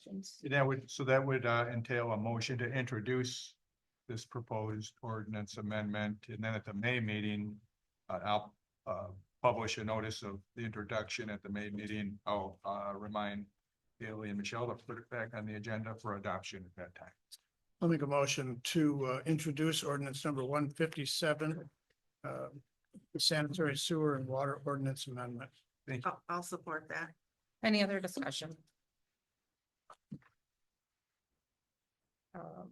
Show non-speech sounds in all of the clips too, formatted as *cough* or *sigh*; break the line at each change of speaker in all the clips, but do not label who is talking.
questions.
That would, so that would uh, entail a motion to introduce this proposed ordinance amendment, and then at the May meeting, uh, I'll uh, publish a notice of the introduction at the May meeting. I'll uh, remind Haley and Michelle to put it back on the agenda for adoption at that time.
I'll make a motion to uh, introduce ordinance number one fifty-seven. uh, Sanitary sewer and water ordinance amendment.
I'll, I'll support that.
Any other discussion? Um,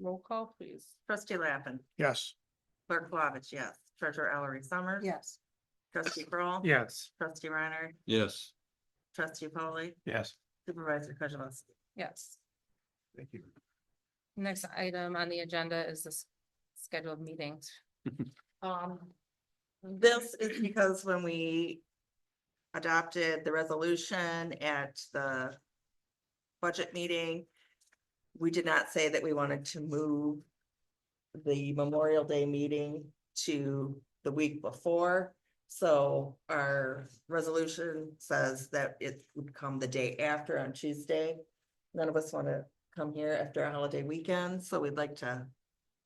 Roll call, please.
Trustee Lappin,
Yes.
clerk Flavich, yes. Treasurer Ellery Summers.
Yes.
Trustee Kroll,
Yes.
Trustee Reiner.
Yes.
Trustee Polly.
Yes.
Supervisor Kozibowski.
Yes.
Thank you.
Next item on the agenda is this scheduled meetings.
Um, this is because when we adopted the resolution at the budget meeting, we did not say that we wanted to move the Memorial Day meeting to the week before. So our resolution says that it would come the day after on Tuesday. None of us want to come here after a holiday weekend, so we'd like to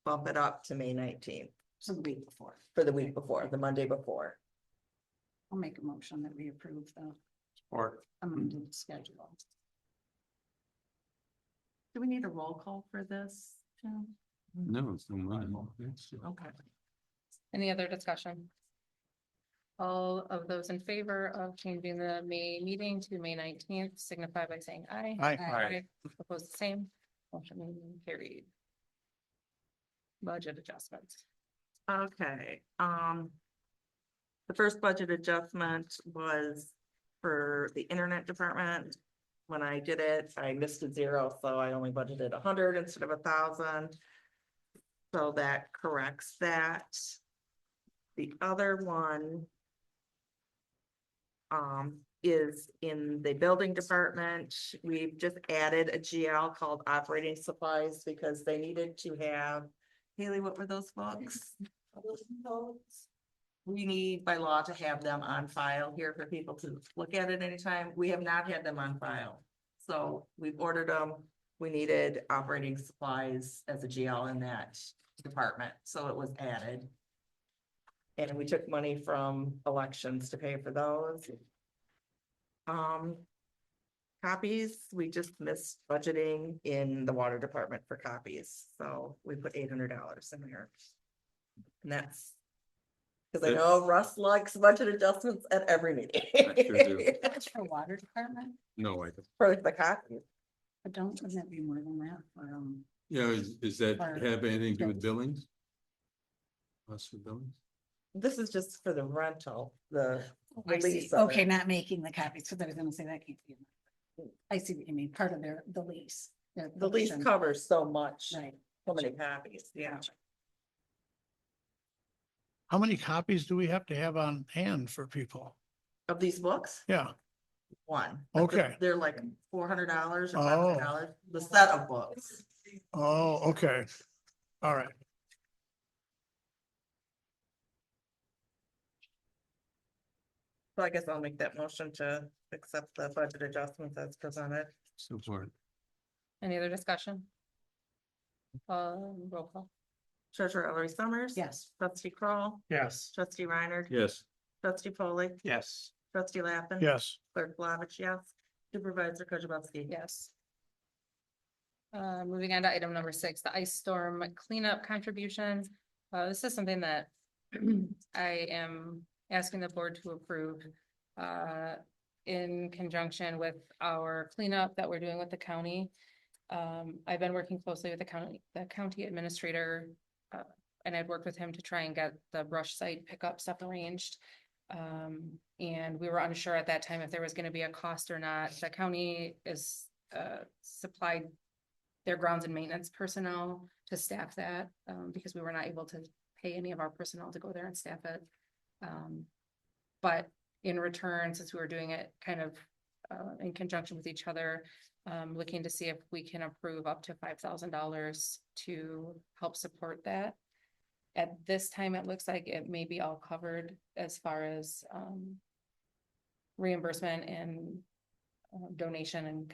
bump it up to May nineteenth
So the week before,
for the week before, the Monday before.
I'll make a motion that we approve the
Or
amended schedule.
Do we need a roll call for this? Tim?
No, it's no mine.
Okay.
Any other discussion? All of those in favor of changing the May meeting to May nineteenth signify by saying aye.
Aye.
Aye. Oppose the same, motion carried. Budget adjustments.
Okay, um. The first budget adjustment was for the internet department. When I did it, I missed a zero, so I only budgeted a hundred instead of a thousand. So that corrects that. The other one. Um, is in the building department. We've just added a GL called operating supplies because they needed to have. Haley, what were those books? We need by law to have them on file here for people to look at at any time. We have not had them on file. So we've ordered them. We needed operating supplies as a GL in that department, so it was added. And we took money from elections to pay for those. Um. Copies, we just missed budgeting in the water department for copies, so we put eight hundred dollars in there. And that's. Cause I
That-
know Russ likes budget adjustments at every
sure do.
meeting.
That's for water department,
No, I, don't.
*laughs* For the copies,
but don't, wouldn't that be more than that? Um,
yeah, is, is that
Fire.
have anything to do with billings? Us for billings?
this is just for the rental, the,
I see,
Release of
okay,
it.
not making the copies, because I was gonna say that can't be. in there. I see what you mean, part of their, the lease. their
the lease
portion.
covers so much,
Right.
so many copies, yeah.
How many copies do we have to have on hand for people?
Of these books?
Yeah,
one. but the-
Okay.
They're like four hundred dollars or
Oh.
five hundred dollars, the set of books.
oh, okay. All right,
So I guess I'll make that motion to accept the budget adjustments as presented.
So far.
Any other discussion? Um, roll call.
Treasurer Ellery Summers.
Yes,
Trustee Crawl,
yes.
trustee Reiner.
Yes.
Trustee Polly,
Yes.
trustee Lappin.
Yes,
Clerk Flavich, yes. Supervisor Kozibowski.
Yes. Uh, moving on to item number six, the ice storm cleanup contribution. Uh, this is something that *clears throat* I am asking the board to approve. Uh, in conjunction with our cleanup that we're doing with the county. Um, I've been working closely with the county, the county administrator. uh, And I'd worked with him to try and get the brush site pickup stuff arranged. Um, and we were unsure at that time if there was gonna be a cost or not. The county is, uh, supplied their grounds and maintenance personnel to staff that, um, because we were not able to pay any of our personnel to go there and staff it. Um, but in return, since we were doing it kind of, uh, in conjunction with each other, um, looking to see if we can approve up to five thousand dollars to help support that. At this time, it looks like it may be all covered as far as um. Reimbursement and uh, donation and